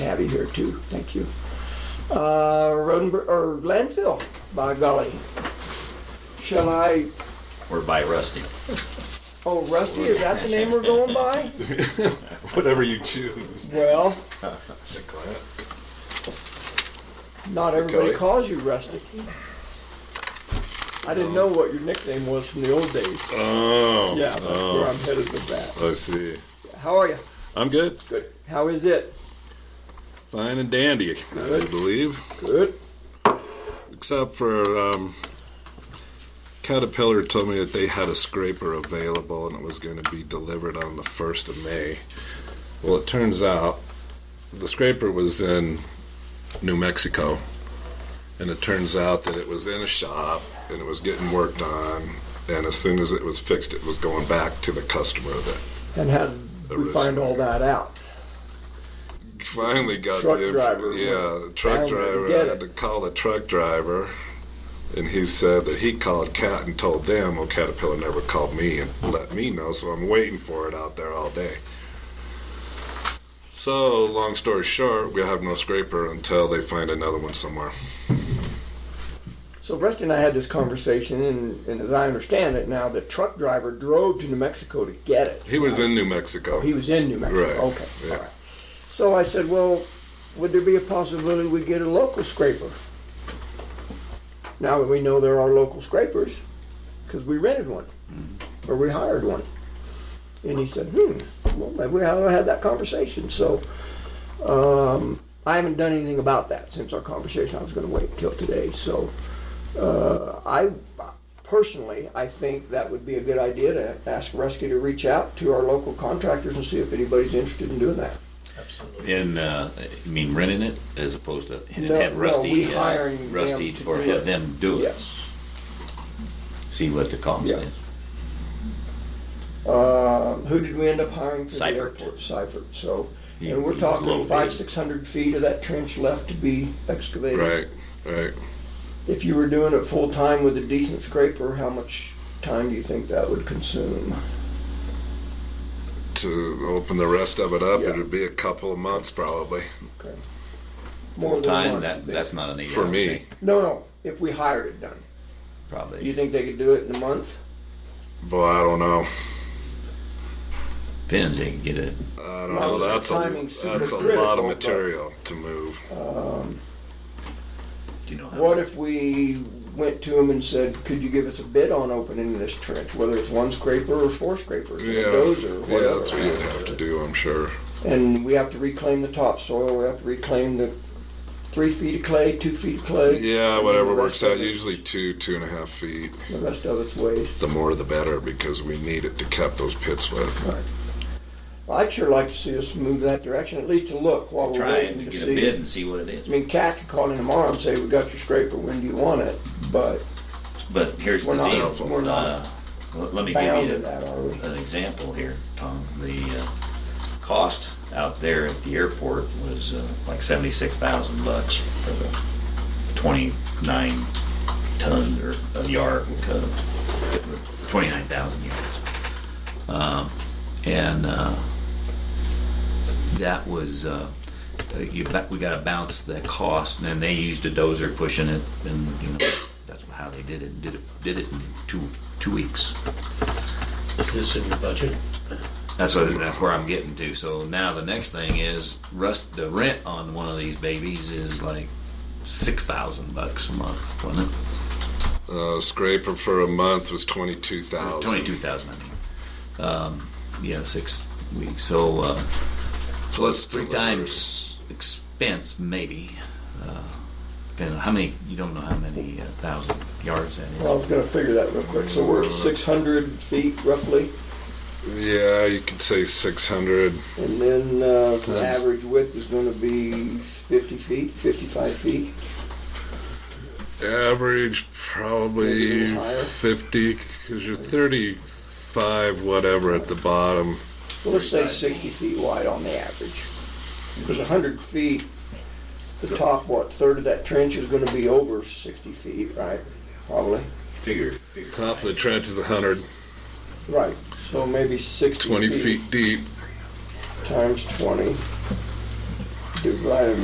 have you here too. Thank you. Uh, Rodenberg, or landfill, by golly. Shall I, We're by Rusty. oh Rusty, is that the name we're going by? Whatever you choose. Well, Glad. not everybody Golly. calls you Rusty. I didn't know what your nickname was from the old days. Oh. Yeah, that's where I'm Oh, headed with that. I see. How are you? I'm good. Good. How is it? Fine and dandy, I Good. believe. Good. Except for um, Caterpillar told me that they had a scraper available and it was going to be delivered on the 1st of May. Well, it turns out the scraper was in New Mexico. And it turns out that it was in a shop and it was getting worked on. And as soon as it was fixed, it was going back to the customer that And how did we find all that out? finally got Truck the inf- driver. yeah the truck Finally driver get I had it. to call the truck driver and he said that he called cat and told them well caterpillar never called me and let me know so i'm waiting for it out there all day so long story short we have no scraper until they find another one somewhere So Rusty and I had this conversation, and, and as I understand it now, the truck driver drove to New Mexico to get it. he was in new mexico He was in New Mexico. Right, Okay. yeah. All right. So I said, well, would there be a possibility we get a local scraper? Now that we know there are local scrapers, because we rented one Mm-hmm. or we hired one. And he said, hmm, well, maybe we haven't had that conversation. So um, I haven't done anything about that since our conversation. I was going to wait until today. So uh, I personally, I think that would be a good idea to ask Rusty to reach out to our local contractors and see if anybody's interested in doing that. In, uh, you mean renting it as opposed to and No, have no, Rusty, we uh, hiring them Rusty, to or do it. have them do it? Yes. See what the cost Yeah. is. Um, who did we end up hiring for the Seifert. airport? Seifert, so, He- and we're he was low talking bid. five, six hundred feet of that trench left to be excavated. right right If you were doing it full-time with a decent scraper, how much time do you think that would consume? to open the rest of it up Yeah. it'd be a couple of months probably Okay. More Full than time, one, that, you that's think? not an eight for hour me thing, No, no, if we hire it done, do you Probably. think they could do it in a month? boy i don't know Depends, they can get it. I don't Why know. was our That's timing a, super that's a critical, lot of but- material to move. Do you know how? What much? if we went to them and said, could you give us a bid on opening this trench, whether it's one scraper or four scrapers, or Yeah, those or whatever? yeah, that's what you'd have to do, I'm sure. And we have to reclaim the topsoil, we have to reclaim the three feet of clay, two feet of clay. Yeah, and whatever the works rest of out. it- Usually two, two and a half feet. The rest of it's waste. The more, the better, because we need it to cap those pits with. Well, I'd sure like to see us move that direction, at least to look while we're Trying to waiting to get a bid see. and see what it I is. mean, Cat could call in tomorrow and say, we got your scraper, when do you want it? But But here's we're the not, deal. we're not Uh, let let me give bound to you the, that, are we? an example here, Tom. The uh, cost out there at the airport was uh, like seventy-six thousand bucks for the twenty-nine ton or a yard, twenty-nine thousand yards. Um, and uh, that was uh, you, that we got to bounce that cost, and then they used a dozer pushing it, and you know that's how they did it. Did it did it in two two weeks. This in your budget? That's what that's where I'm getting to. So now the next thing is rust. The rent on one of these babies is like six thousand bucks a month, wasn't it? Uh, scraper for a month was twenty-two thousand. Twenty-two thousand, I mean. Um, yeah, six weeks. So uh, so it's three times expense, maybe. Uh, depending on how many? You don't know how many uh, thousand yards that is. Well, I was gonna figure that real quick, so we're at six hundred feet roughly, Yeah, you could say six hundred. and then, uh, the Times. average width is gonna be fifty feet, fifty-five feet. Average Maybe a probably little higher. fifty, because you're thirty-five whatever at the bottom. Well, let's say sixty feet wide on the average. Because hundred feet, the top, what, third of that trench is gonna be over sixty feet, right? Probably, Figure, figure. Top of the trench is a hundred, right, so maybe sixty twenty feet feet deep. times twenty. to provide